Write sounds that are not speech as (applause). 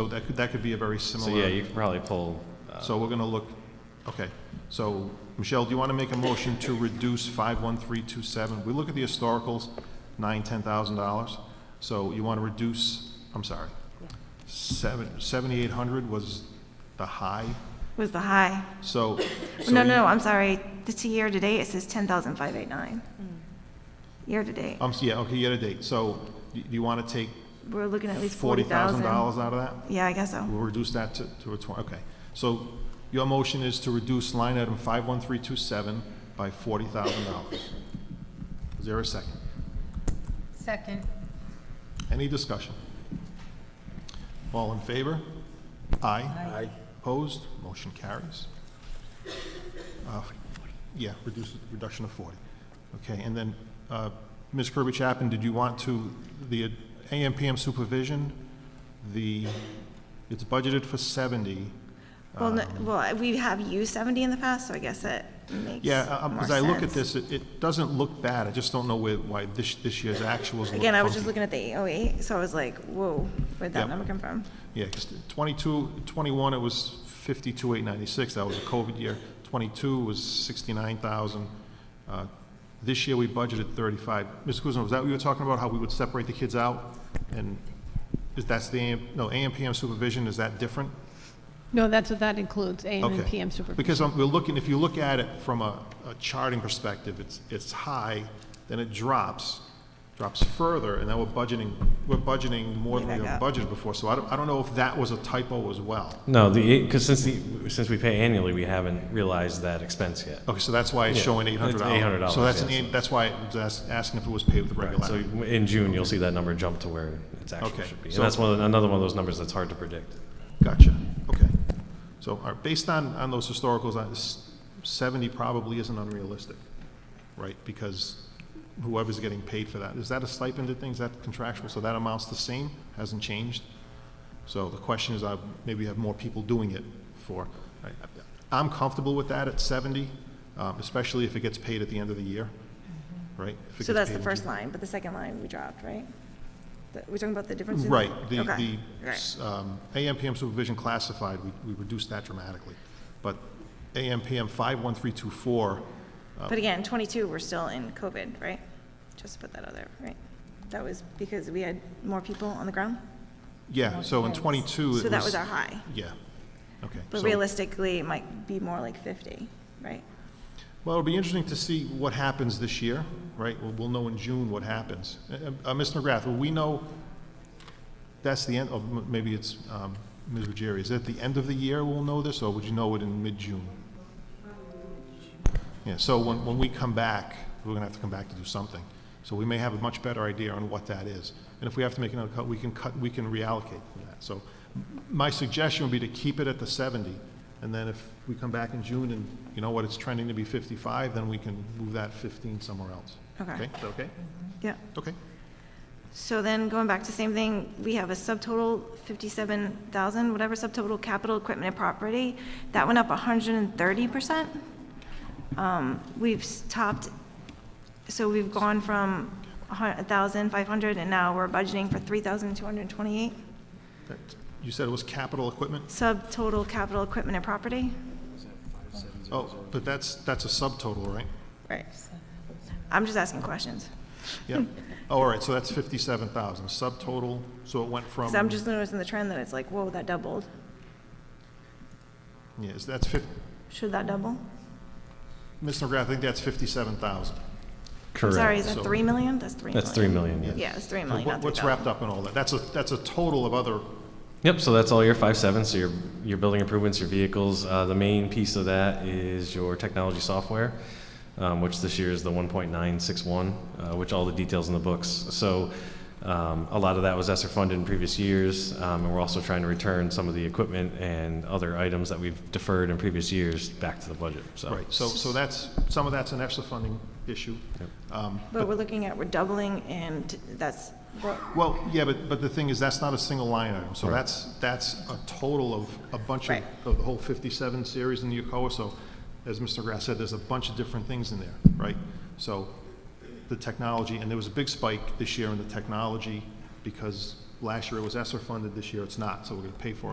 So that could, that could be a very So yeah, similar, you could probably pull, uh, so we're gonna look, okay. So, Michelle, do you wanna make a motion to reduce five one three two seven? We look at the historicals, nine, ten thousand dollars. So you wanna reduce, I'm sorry, seven, seventy-eight hundred was the high, Was the high? so. so No, no, you- no, I'm sorry. It's a year-to-date, it says 10,589. Year-to-date. Um, yeah, okay, you had a date. So, do you wanna take We're looking at least forty thousand 40,000. dollars out of that? Yeah, I guess so. We'll reduce that to, to a twen- okay. So your motion is to reduce line item 51327 by $40,000. Is there a second? Second. Any discussion? All in favor? Aye. Aye. Opposed? Motion carries. Uh, Yeah, reduce, reduction of 40. Okay, and then, uh, Ms. Kirby Chapin, did you want to, the AMPM supervision, the, it's budgeted for 70. Well, no- Um, well, we have used 70 in the past, so I guess it makes Yeah, more as I look at sense. this, it- it doesn't look bad, I just don't know where- why this, this year's actuals look Again, I was just funky. looking at the 808, so I was like, whoa, Yep. where'd that number come from? Yeah, because 22, 21, it was 52,896, that was a COVID year. 22 was 69,000. Uh, This year, we budgeted 35. Mr. Kuzma, was that what you were talking about, how we would separate the kids out? And is that's the, AM no, AMPM supervision, is that different? No, that's what that includes, AM and Okay. PM supervision. Because I'm- we're looking, if you look at it from a a charting perspective, it's, it's high, then it drops, drops further, and now we're budgeting, we're budgeting more than Way we back have up. budgeted before. So I don't, I don't know if that was a typo as well. no, the, because since the, since we pay annually, we haven't realized that expense yet. Okay, so that's why it's Yeah, showing eight hundred it's dollars. $800, So that's, an yeah, eight- so- that's why I was ask- asking if it was paid with Right, so regularity. in June, you'll see that number jump to where it's actually Okay, should be. And so- that's one, of the- another one of those numbers that's hard to predict. Gotcha, okay. So, all right, based on, on those historicals, I- s- seventy probably isn't unrealistic, right? Because whoever's getting paid for that, is that a stipend and things, is that contractual? So that amount's the same, hasn't changed? So the question is, I, maybe have more people doing it for, I- I'm comfortable with that at seventy, um, especially if it gets paid at the end of the year, right? If it So gets that's paid the in first June. line, but the second line we dropped, right? The- We're talking about the difference in? Right, the, Okay, the right. s- um, AMPM supervision classified, we we reduced that dramatically. But AMPM 51324, Oh. But again, 22, we're still in COVID, right? Just to put that out there, right? That was because we had more people on the ground? yeah, so in 22, it was... Oh, So that was our high. Yeah, okay. But so- realistically, it might be more like 50, right? Well, it'll be interesting to see what happens this year, right? We'll- We'll know in June what happens. Uh, uh, Ms. McGrath, will we know, that's the end, of m- maybe it's um, Ms. Ruggieri, is it the end of the year we'll know this, or would you know it in mid-June? Yeah, so when, when we come back, we're gonna have to come back to do something. So we may have a much better idea on what that is. And if we have to make another cut, we can cut, we can reallocate from that. So m- my suggestion would be to keep it at the 70, and then if we come back in June and, you know what, it's trending to be 55, then we can move that 15 somewhere else. Okay. Okay, is that okay? Yeah. Okay. So then going back to same thing, we have a subtotal 57,000, whatever subtotal capital equipment and property. That went up 130%. Um, We've s- topped, so we've gone from a hun- 1,500 and now we're budgeting for 3,228. That- You said it was capital equipment? Subtotal capital equipment and property. Oh, but that's, that's a subtotal, right? Right. I'm just asking questions. (laughs) Yeah. Oh, all right, so that's 57,000, subtotal, so it went from... Because I'm just noticing the trend that it's like, whoa, that doubled. Yeah, is- that's 50, Should that double? Mr. McGrath, I think that's 57,000. I'm Correct. Sorry, is that so- 3 million? That's 3 million. That's three million, yeah. Yeah, it's 3 So million, what- not What's 3,000. wrapped up in all that? That's a, that's a total of other, Yep, so that's all your five seven, so your, your building improvements, your vehicles. Uh, the main piece of that is your technology software, um, which this year is the one point nine six one, uh, which all the details in the books. So, um, a lot of that was ESSER funded in previous years, um, and we're also trying to return some of the equipment and other items that we've deferred in previous years back to the budget, Oh. so. right, so, so that's, some of that's an extra funding issue. Um, But we're looking at, we're doubling, and that's, Well, yeah, but, but the thing is, that's not a single line item, so that's, that's a total of a bunch of, Right. of the whole 57 series in the Yokoa, so, as Mr. Grass said, there's a bunch of different things in there, right? So, the technology, and there was a big spike this year in the technology, because last year it was ESSER funded, this year it's not, so we're gonna pay for it